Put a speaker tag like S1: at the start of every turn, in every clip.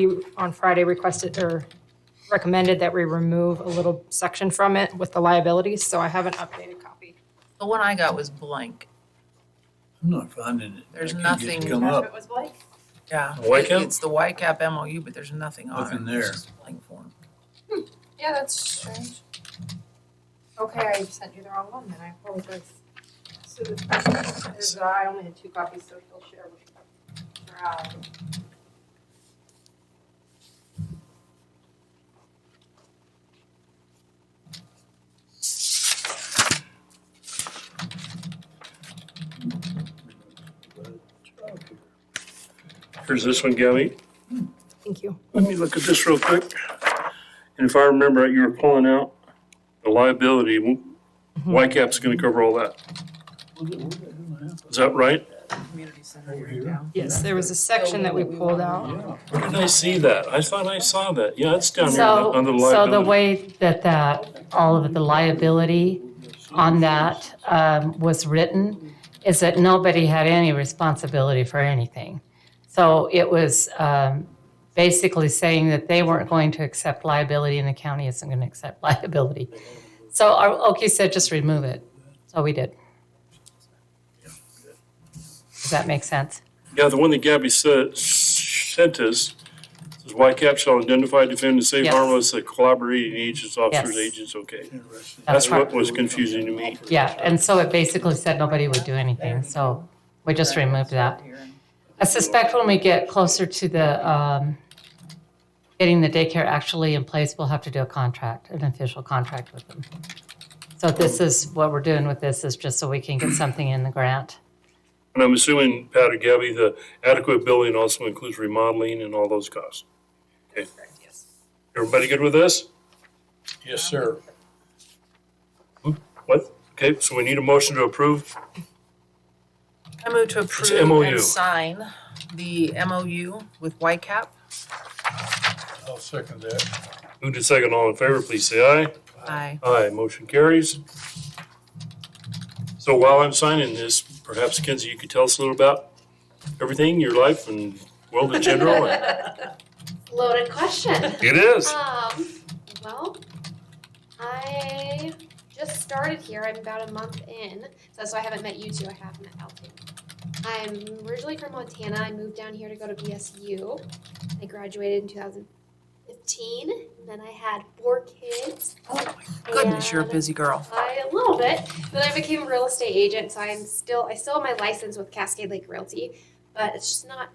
S1: You on Friday requested or recommended that we remove a little section from it with the liabilities, so I have an updated copy.
S2: The one I got was blank.
S3: I'm not finding it.
S2: There's
S3: I can't get it to
S2: nothing-
S3: Come up.
S1: was Blake?
S2: Yeah.
S3: The white
S2: It-
S3: cap?
S2: It's the YCAP MOU, but there's nothing on it.
S3: Nothing
S2: It's
S3: there.
S2: just a blank form.
S1: Yeah, that's strange. Okay, I sent you the wrong one, then I apologize. So the question is, that I only had two copies, so he'll share with Brad.
S4: Here's this one, Gabby.
S1: Thank you.
S4: Let me look at this real quick. And if I remember right, you were pulling out the liability. YCAP's going to cover all that. Is that right?
S2: Community center
S3: Over
S2: here
S3: here?
S2: down.
S1: Yes, there was a section that we pulled out.
S3: Yeah.
S4: Where did I see that? I thought I saw that. Yeah, it's down here
S5: So,
S4: under the
S5: so the
S4: liability.
S5: way that that, all of the liability on that um, was written is that nobody had any responsibility for anything. So it was um, basically saying that they weren't going to accept liability and the county isn't going to accept liability. So our- Oki said, just remove it. So we did. Does that make sense?
S4: Yeah, the one that Gabby said, sent us, says YCAP shall identify, defend, and save
S5: Yes.
S4: harmless the collaborating agents, officers,
S5: Yes.
S4: agents, okay.
S3: Interesting.
S5: That's
S4: That's what
S5: right.
S4: was confusing to me.
S5: Yeah, and so it basically said nobody would do anything, so we just removed that. I suspect when we get closer to the, um, getting the daycare actually in place, we'll have to do a contract, an official contract with them. So this is, what we're doing with this is just so we can get something in the grant.
S4: And I'm assuming, Pat or Gabby, the adequate building also includes remodeling and all those costs. Okay. Everybody good with this?
S3: Yes, sir.
S4: What? Okay, so we need a motion to approve.
S2: I move to approve
S4: MOU.
S2: and sign the MOU with YCAP.
S3: I'll second that.
S4: Moved and second, all in favor, please say aye.
S2: Aye.
S4: Aye, motion carries. So while I'm signing this, perhaps Kenzie, you could tell us a little about everything, your life and world in general. and-
S6: Loaded question.
S4: It is.
S6: Um, well, I just started here. I'm about a month in. So, so I haven't met you two. I have met Elton. I'm originally from Montana. I moved down here to go to BSU. I graduated in 2015. And then I had four kids.
S2: Oh my goodness, you're a
S6: And-
S2: busy girl.
S6: I, a little bit. Then I became a real estate agent, so I'm still I still have my license with Cascade Lake Realty, but it's just not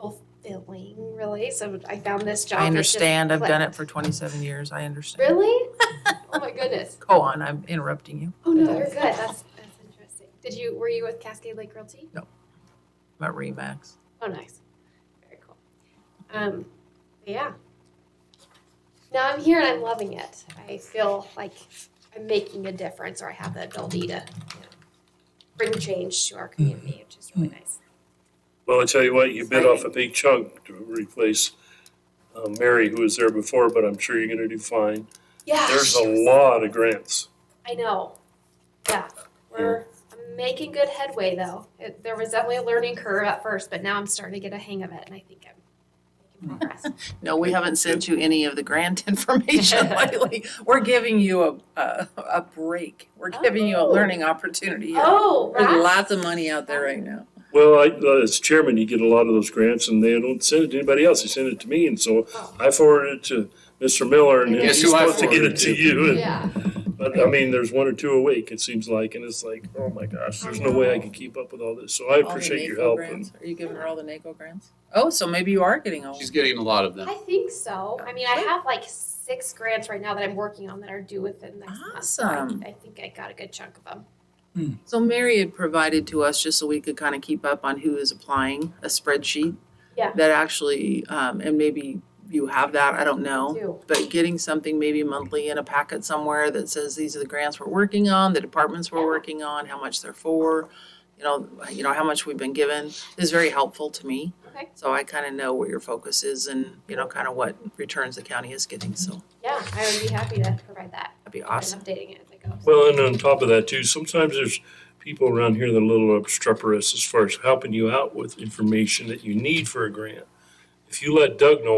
S6: fulfilling really. So I found this job.
S2: I
S6: that just
S2: understand. I've done
S6: clicked.
S2: it for twenty-seven years. I understand.
S6: Really? oh my goodness.
S2: Go on, I'm interrupting you.
S6: Oh no, you're good. That's that's interesting. Did you were you with Cascade Lake Realty?
S2: About Remax.
S6: Oh, nice. Very cool. Um, but yeah. Now I'm here and I'm loving it. I feel like I'm making a difference or I have the ability to you know, bring change to our community, which is really nice.
S4: Well, I tell you what, you bit off a big chunk to replace uh, Mary, who was there before, but I'm sure you're going to do fine.
S6: Yeah.
S4: There's a lot of grants.
S6: I know. Yeah. We're I'm making good headway though. It, there was definitely a learning curve at first, but now I'm starting to get a hang of it and I think I'm making progress.
S2: No, we haven't sent you any of the grant information lately. We're giving you a, a, a break. We're giving you a
S6: Oh.
S2: learning opportunity here.
S6: Oh,
S2: There's
S6: right.
S2: lots of money out there right now.
S4: Well, I, uh, as chairman, you get a lot of those grants and they don't send it to anybody else. They send it to me. And so
S6: Oh.
S4: I forwarded it to Mr. Miller and he's
S6: Guess who I
S4: supposed to get
S3: forwarded
S4: it
S3: it
S4: to
S3: to?
S4: you. And-
S6: Yeah.
S4: But I mean, there's one or two a week, it seems like, and it's like, oh my gosh, there's no way I can keep up with all this. So I
S2: All the
S4: appreciate your
S2: NACO
S4: help.
S2: grants. Are you giving her all the NACO grants? Oh, so maybe you are getting all.
S7: She's getting a lot of them.
S6: I think so. I mean, I have like six grants right now that I'm working on that are due within the next month. so I-
S2: Awesome.
S6: I think I got a good chunk of them.
S2: So Mary had provided to us, just so we could kind of keep up on who is applying, a spreadsheet.
S6: Yeah.
S2: That actually, um, and maybe you have that, I don't know.
S6: too.
S2: but getting something maybe monthly in a packet somewhere that says these are the grants we're working on, the departments we're working on, how much they're for, you know, you know, how much we've been given is very helpful to me.
S6: Okay.
S2: So I kind of know where your focus is and, you know, kind of what returns the county is getting, so
S6: Yeah, I would be happy to provide that.
S2: that'd be
S6: and
S2: awesome.
S6: updating it as I go.
S4: Well, and on top of that too, sometimes there's people around here that are a little obstreperous as far as helping you out with information that you need for a grant. If you let Doug know